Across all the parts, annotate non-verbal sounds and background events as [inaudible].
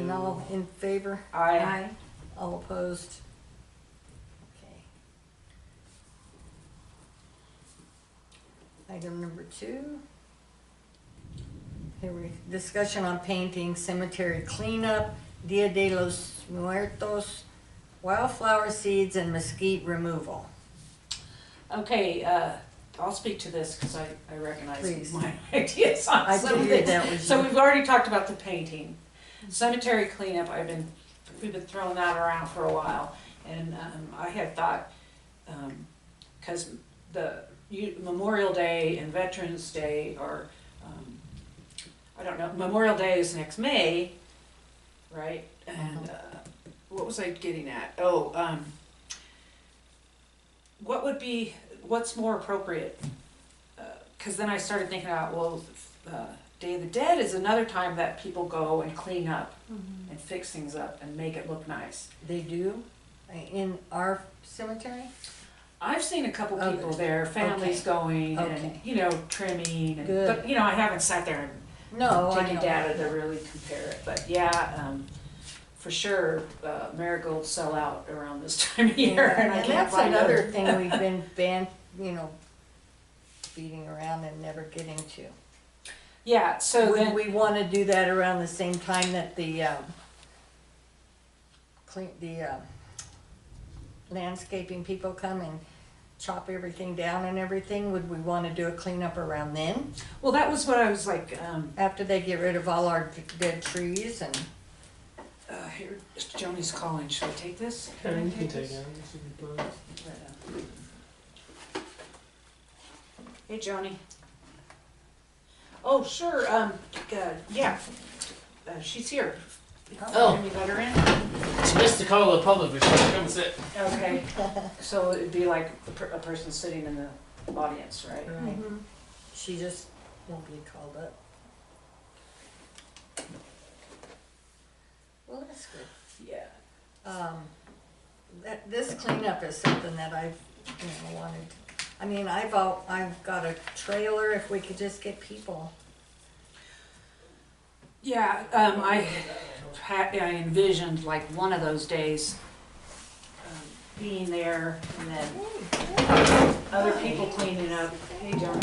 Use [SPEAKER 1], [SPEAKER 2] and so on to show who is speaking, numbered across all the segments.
[SPEAKER 1] And all in favor?
[SPEAKER 2] I,
[SPEAKER 3] Aye.
[SPEAKER 1] All opposed? Okay. Item number two. Here we, discussion on painting cemetery cleanup, Dia de los Muertos, wildflower seeds and mesquite removal.
[SPEAKER 2] okay, uh, I'll speak to this because I, I recognize
[SPEAKER 1] Please.
[SPEAKER 2] my [laughs] ideas on
[SPEAKER 1] I
[SPEAKER 2] some
[SPEAKER 1] figured
[SPEAKER 2] things.
[SPEAKER 1] that was.
[SPEAKER 2] So we've already talked about the painting. Cemetery cleanup, I've been, we've been throwing that around for a while. And um, I had thought, because the you- Memorial Day and Veterans Day are, um, I don't know, Memorial Day is next May, right? And
[SPEAKER 1] Uh-huh.
[SPEAKER 2] uh, what was I getting at? Oh, um, what would be, what's more appropriate? Because then I started thinking about, well, uh, Day of the Dead is another time that people go and clean up
[SPEAKER 1] Mm-hmm.
[SPEAKER 2] and fix things up and make it look nice.
[SPEAKER 1] They do, uh, in our cemetery?
[SPEAKER 2] I've seen a couple
[SPEAKER 1] Oh,
[SPEAKER 2] people there, families going and
[SPEAKER 1] Okay.
[SPEAKER 2] you know trimming, and,
[SPEAKER 1] Good.
[SPEAKER 2] but you know I haven't sat there and
[SPEAKER 1] No, I
[SPEAKER 2] taken
[SPEAKER 1] know.
[SPEAKER 2] data to really compare it. But yeah, um, for sure, uh, marigolds sell out around this [laughs] time of year,
[SPEAKER 1] Yeah,
[SPEAKER 2] and I can't
[SPEAKER 1] that's
[SPEAKER 2] find
[SPEAKER 1] another
[SPEAKER 2] them.
[SPEAKER 1] thing
[SPEAKER 2] [laughs]
[SPEAKER 1] we've been ban, you know, beating around and never getting to.
[SPEAKER 2] Yeah, so
[SPEAKER 1] Would
[SPEAKER 2] then
[SPEAKER 1] we want to do that around the same time that the, um, clean, the, um, landscaping people come and chop everything down and everything? Would we want to do a cleanup around then,
[SPEAKER 2] well, that was what I was like. Um,
[SPEAKER 1] after they get rid of all our d- dead trees and?
[SPEAKER 2] uh, here, Joni's calling. Should I take this?
[SPEAKER 4] Yeah, you can take
[SPEAKER 2] this?
[SPEAKER 4] it. It should be fine.
[SPEAKER 2] Hey, Joni. Oh, sure, um, uh, yeah, uh, she's here.
[SPEAKER 4] Oh.
[SPEAKER 2] Can we let her in?
[SPEAKER 4] She missed the call of the public, but she can come sit.
[SPEAKER 2] Okay, so it'd be like a per- a person sitting in the audience, right?
[SPEAKER 5] Mm-hmm.
[SPEAKER 1] She just won't be called up. Well, that's good.
[SPEAKER 2] Yeah.
[SPEAKER 1] Um, that, this cleanup is something that I've, you know, wanted, I mean, I've all, I've got a trailer, if we could just get people.
[SPEAKER 2] Yeah, um, I had, I envisioned like one of those days um, being there and then other people cleaning up. Hey, John.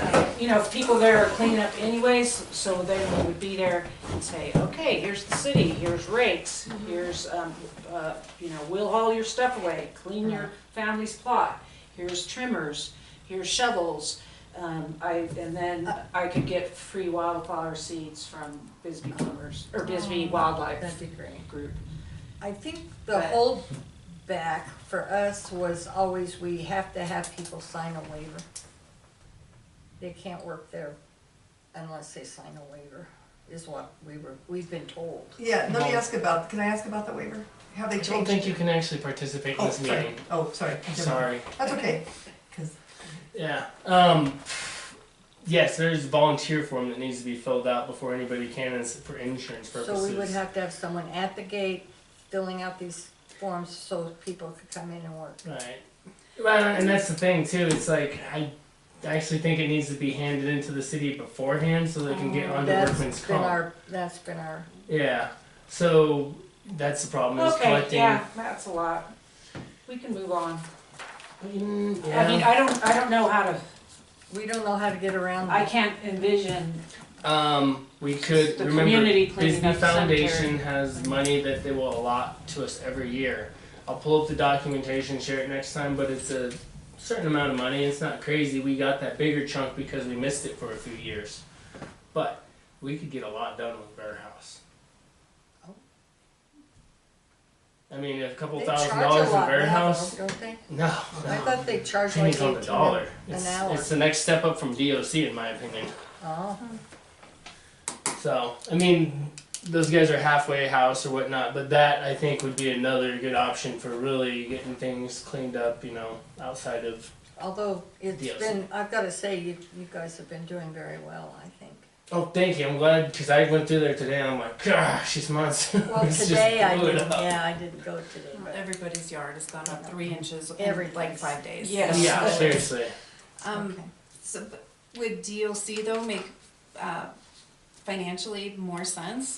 [SPEAKER 2] Uh, You know, if people there are cleaning up anyways, so then we would be there and say, okay, here's the city, here's rates, here's, um, uh, you know, we'll haul your stuff away, clean your family's plot, here's trimmers, here's shovels. Um, I, and then I could get free wildflower seeds from Bisbee Plumbers, or Bisbee Wildlife
[SPEAKER 1] be great.
[SPEAKER 2] Group.
[SPEAKER 1] I think the
[SPEAKER 2] But-
[SPEAKER 1] hold back for us was always we have to have people sign a waiver. They can't work there unless they sign a waiver, is what we were, we've been told.
[SPEAKER 5] Yeah, let me ask about, can I ask about the waiver? How they
[SPEAKER 4] I don't
[SPEAKER 5] changed?
[SPEAKER 4] think you
[SPEAKER 5] it?
[SPEAKER 4] can actually participate in
[SPEAKER 5] Oh,
[SPEAKER 4] this
[SPEAKER 5] sorry,
[SPEAKER 4] meeting.
[SPEAKER 5] oh, sorry.
[SPEAKER 4] I'm sorry.
[SPEAKER 5] That's okay, cause
[SPEAKER 4] Yeah. Um, yes, there's a volunteer form that needs to be filled out before anybody can and it's for insurance purposes.
[SPEAKER 1] So we would have to have someone at the gate filling out these forms so people could come in and work.
[SPEAKER 4] Right. Well, and that's the thing too. It's like I actually think it needs to be handed into the city beforehand so they can get onto workman's
[SPEAKER 1] Oh, That's been
[SPEAKER 4] comp.
[SPEAKER 1] our, that's been our,
[SPEAKER 4] Yeah. So that's the problem is
[SPEAKER 2] Okay,
[SPEAKER 4] collecting.
[SPEAKER 2] yeah, that's a lot. We can move on.
[SPEAKER 4] Mm,
[SPEAKER 2] I mean,
[SPEAKER 4] yeah.
[SPEAKER 2] I don't, I don't know how to,
[SPEAKER 1] we don't know how to get around
[SPEAKER 2] I
[SPEAKER 1] that.
[SPEAKER 2] can't envision
[SPEAKER 4] Um, we could
[SPEAKER 2] The
[SPEAKER 4] remember
[SPEAKER 2] community cleaning
[SPEAKER 4] Bisbee
[SPEAKER 2] up the
[SPEAKER 4] Foundation has money that they will allot to us every year. I'll pull up the documentation, share it next time, but it's a certain amount of money. It's not crazy. We got that bigger chunk because we missed it for a few years, but we could get a lot done with Bear House.
[SPEAKER 1] Oh.
[SPEAKER 4] I mean, a couple
[SPEAKER 1] They
[SPEAKER 4] thousand
[SPEAKER 1] charge a
[SPEAKER 4] dollars in
[SPEAKER 1] lot
[SPEAKER 4] Bear
[SPEAKER 1] now,
[SPEAKER 4] House.
[SPEAKER 1] Don't they?
[SPEAKER 4] No,
[SPEAKER 1] I
[SPEAKER 4] no.
[SPEAKER 1] thought they charged like
[SPEAKER 4] pennies on the
[SPEAKER 1] eighteen.
[SPEAKER 4] dollar.
[SPEAKER 1] an
[SPEAKER 4] It's,
[SPEAKER 1] hour.
[SPEAKER 4] it's the next step up from DOC, in my opinion.
[SPEAKER 1] Oh,
[SPEAKER 4] So, I mean, those guys are halfway house or whatnot, but that I think would be another good option for really getting things cleaned up, you know, outside of.
[SPEAKER 1] although it's
[SPEAKER 4] Yes.
[SPEAKER 1] been, I've gotta say, you, you guys have been doing very well, I think.
[SPEAKER 4] [laughs] Oh, thank you. I'm glad because I went through there today and I'm like, gosh, these months. [laughs]
[SPEAKER 1] Well,
[SPEAKER 4] it's just
[SPEAKER 1] today I
[SPEAKER 4] blew it
[SPEAKER 1] didn't,
[SPEAKER 4] up.
[SPEAKER 1] yeah, I didn't go today, but
[SPEAKER 3] Everybody's yard has gone up three inches in like
[SPEAKER 1] Everything's-
[SPEAKER 3] five days.
[SPEAKER 2] Yes.
[SPEAKER 4] Yeah, seriously.
[SPEAKER 3] Um,
[SPEAKER 1] Okay.
[SPEAKER 3] so, but would DLC though make, uh, financially more sense?